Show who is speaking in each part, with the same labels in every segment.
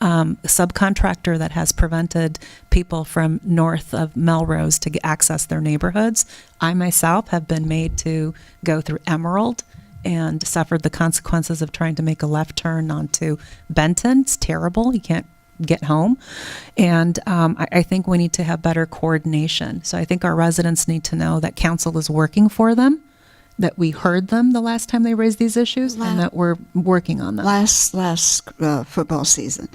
Speaker 1: um, subcontractor that has prevented people from north of Melrose to get- access their neighborhoods. I myself have been made to go through Emerald and suffered the consequences of trying to make a left turn onto Benton. It's terrible. You can't get home. And um, I, I think we need to have better coordination. So I think our residents need to know that council is working for them, that we heard them the last time they raised these issues, and that we're working on them.
Speaker 2: last last uh, football season.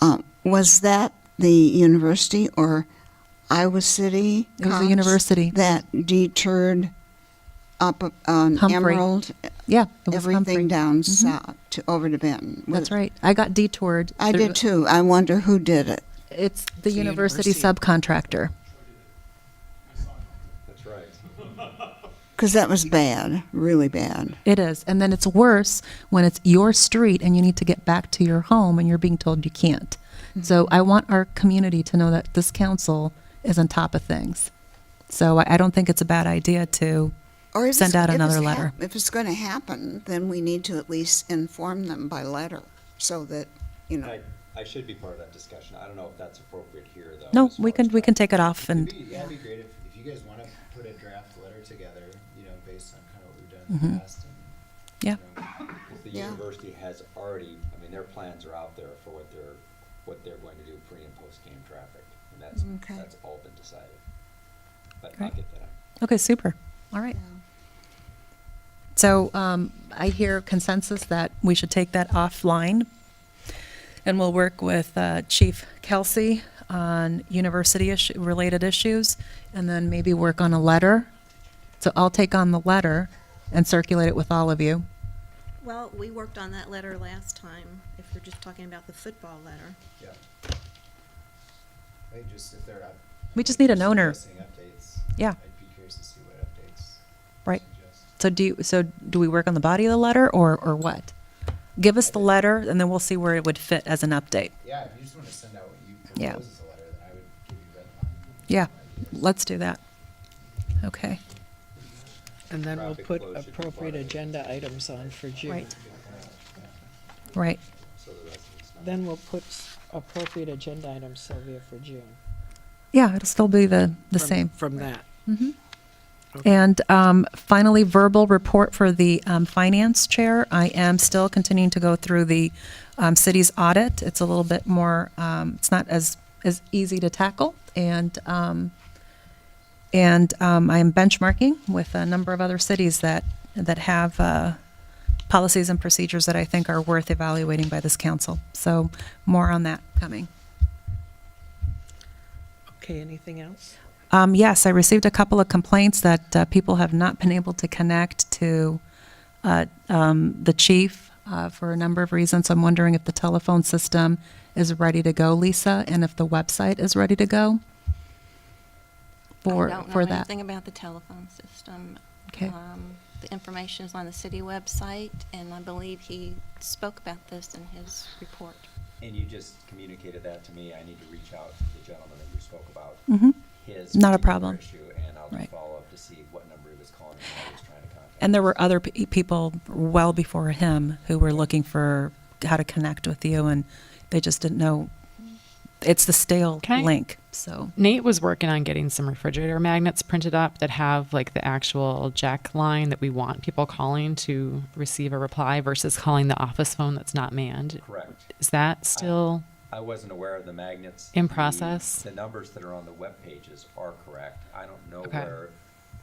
Speaker 2: Um, was that the university or Iowa City?
Speaker 1: It was the
Speaker 2: cops
Speaker 1: university.
Speaker 2: that deterred up on
Speaker 1: Humphrey.
Speaker 2: Emerald
Speaker 1: yeah, it was
Speaker 2: everything
Speaker 1: Humphrey.
Speaker 2: down south to over to Benton.
Speaker 1: That's
Speaker 2: Was-
Speaker 1: right. I got detoured.
Speaker 2: I
Speaker 1: through-
Speaker 2: did too. I wonder who did it.
Speaker 1: It's the, university, subcontractor.
Speaker 2: Because that was bad, really bad.
Speaker 1: It is. And then it's worse when it's your street and you need to get back to your home and you're being told you can't. So
Speaker 2: Mm-hmm.
Speaker 1: I want our community to know that this council is on top of things. So I, I don't think it's a bad idea to
Speaker 2: Or if
Speaker 1: Send
Speaker 2: it's-
Speaker 1: out
Speaker 2: if
Speaker 1: another
Speaker 2: it's
Speaker 1: letter.
Speaker 2: hap- if it's going to happen, then we need to at least inform them by letter so that you know.
Speaker 3: I, I should be part of that discussion. I don't know if that's appropriate here, though.
Speaker 1: No,
Speaker 3: as
Speaker 1: we
Speaker 3: far
Speaker 1: can
Speaker 3: as
Speaker 1: we can
Speaker 3: draft.
Speaker 1: take it off and
Speaker 4: Maybe, yeah, it'd be great if, if you guys want to put a draft letter together, you know, based on kind of what we've done
Speaker 1: Mm-hmm.
Speaker 4: in the past. and,
Speaker 1: Yeah.
Speaker 4: you know,
Speaker 3: If the
Speaker 2: Yeah.
Speaker 3: university has already, I mean, their plans are out there for what they're, what they're going to do pre and post game traffic. And that's,
Speaker 2: Okay.
Speaker 3: that's all been decided. But I'll
Speaker 1: Great.
Speaker 3: get that. out.
Speaker 1: okay, super. All right. So um, I hear consensus that we should take that offline, and we'll work with uh, Chief Kelsey on university issue, related issues, and then maybe work on a letter. So I'll take on the letter and circulate it with all of you.
Speaker 5: Well, we worked on that letter last time, if we're just talking about the football letter.
Speaker 4: Yeah. I just, if they're up.
Speaker 1: We just need an owner.
Speaker 4: suggesting Updates.
Speaker 1: Yeah.
Speaker 4: I'd be curious to see what updates. you
Speaker 1: Right.
Speaker 4: suggest.
Speaker 1: So do you, so do we work on the body of the letter or or what? Give us the letter, and then we'll see where it would fit as an update.
Speaker 4: Yeah, if you just want to send out what you
Speaker 1: Yeah.
Speaker 4: propose as a letter, then I would give you red line.
Speaker 1: Yeah, let's do that. Okay.
Speaker 6: And then we'll
Speaker 3: Traffic
Speaker 6: put
Speaker 3: flow should be part
Speaker 6: appropriate
Speaker 3: of it.
Speaker 6: agenda items on for June.
Speaker 1: Right. Right.
Speaker 3: So the residents know.
Speaker 6: Then we'll put s- appropriate agenda items, Sylvia, for June.
Speaker 1: Yeah, it'll still be the the
Speaker 6: From-
Speaker 1: same. Mm-hmm.
Speaker 6: From that.
Speaker 1: And um, finally, verbal report for the um, finance chair. I am still continuing to go through the um, city's audit. It's a little bit more, um, it's not as, as easy to tackle. And, um, and um, I am benchmarking with a number of other cities that, that have uh, policies and procedures that I think are worth evaluating by this council. So more on that coming.
Speaker 6: Okay, anything else?
Speaker 1: Um, yes, I received a couple of complaints that uh, people have not been able to connect to uh, um, the chief uh, for a number of reasons. I'm wondering if the telephone system is ready to go, Lisa, and if the website is ready to go for
Speaker 7: I don't know
Speaker 1: for that.
Speaker 7: anything about the telephone system.
Speaker 1: Okay.
Speaker 7: Um, The information is on the city website, and I believe he spoke about this in his report.
Speaker 3: And you just communicated that to me. I need to reach out to the gentleman that you spoke about.
Speaker 1: Mhm.
Speaker 3: His.
Speaker 1: Not a
Speaker 3: particular
Speaker 1: problem.
Speaker 3: Issue, and I'll
Speaker 1: Right.
Speaker 3: follow up to see what number he was calling and how he was trying to contact.
Speaker 1: And there were other pe- people well before him who were looking for how to connect with you, and they just didn't know. It's the stale
Speaker 8: Can I-
Speaker 1: link. So
Speaker 8: Nate was working on getting some refrigerator magnets printed up that have like the actual jack line that we want people calling to receive a reply versus calling the office phone that's not manned.
Speaker 3: Correct.
Speaker 8: Is that still?
Speaker 3: I wasn't aware of the magnets.
Speaker 8: In
Speaker 3: The-
Speaker 8: process?
Speaker 3: The numbers that are on the web pages are correct. I don't know
Speaker 8: Okay.
Speaker 3: where,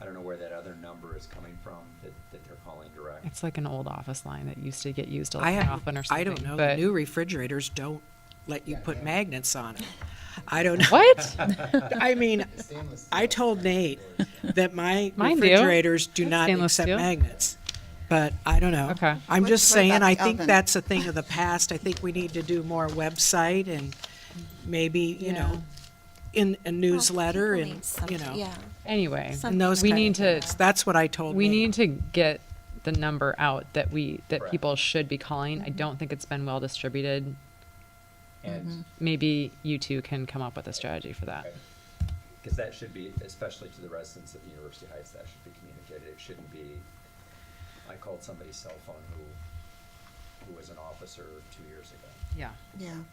Speaker 3: I don't know where that other number is coming from that, that they're calling direct.
Speaker 8: It's like an old office line that used to get used a
Speaker 9: I
Speaker 8: lot
Speaker 9: have,
Speaker 8: often or something.
Speaker 9: I don't know, the
Speaker 8: but-
Speaker 9: new refrigerators don't let you put magnets on it. I don't know.
Speaker 8: What?
Speaker 9: I mean, I told Nate that my
Speaker 8: Mine do.
Speaker 9: refrigerators do not
Speaker 8: Stainless
Speaker 9: accept
Speaker 8: steel.
Speaker 9: magnets. But I don't know.
Speaker 8: Okay.
Speaker 9: I'm
Speaker 2: What-
Speaker 9: just
Speaker 2: what
Speaker 9: saying,
Speaker 2: about
Speaker 9: I
Speaker 2: the
Speaker 9: think
Speaker 2: oven?
Speaker 9: that's a thing of the past. I think we need to do more website and maybe, you know, in a newsletter
Speaker 7: People
Speaker 9: and,
Speaker 7: need something-
Speaker 9: you know,
Speaker 7: Yeah.
Speaker 8: Anyway,
Speaker 9: and those
Speaker 8: we
Speaker 9: kind of
Speaker 8: need to
Speaker 9: things. That's what I told
Speaker 8: we
Speaker 9: Nate.
Speaker 8: need to get the number out that we that
Speaker 3: Correct.
Speaker 8: people should be calling.
Speaker 9: Mm-hmm.
Speaker 8: I don't think it's been well distributed. Mm-hmm.
Speaker 3: And,
Speaker 8: Maybe you two can come up with a strategy for that.
Speaker 3: because that should be, especially to the residents of University Heights, that should be communicated. It shouldn't be, I called somebody's cell phone who, who was an officer two years ago.
Speaker 8: Yeah.
Speaker 2: Yeah.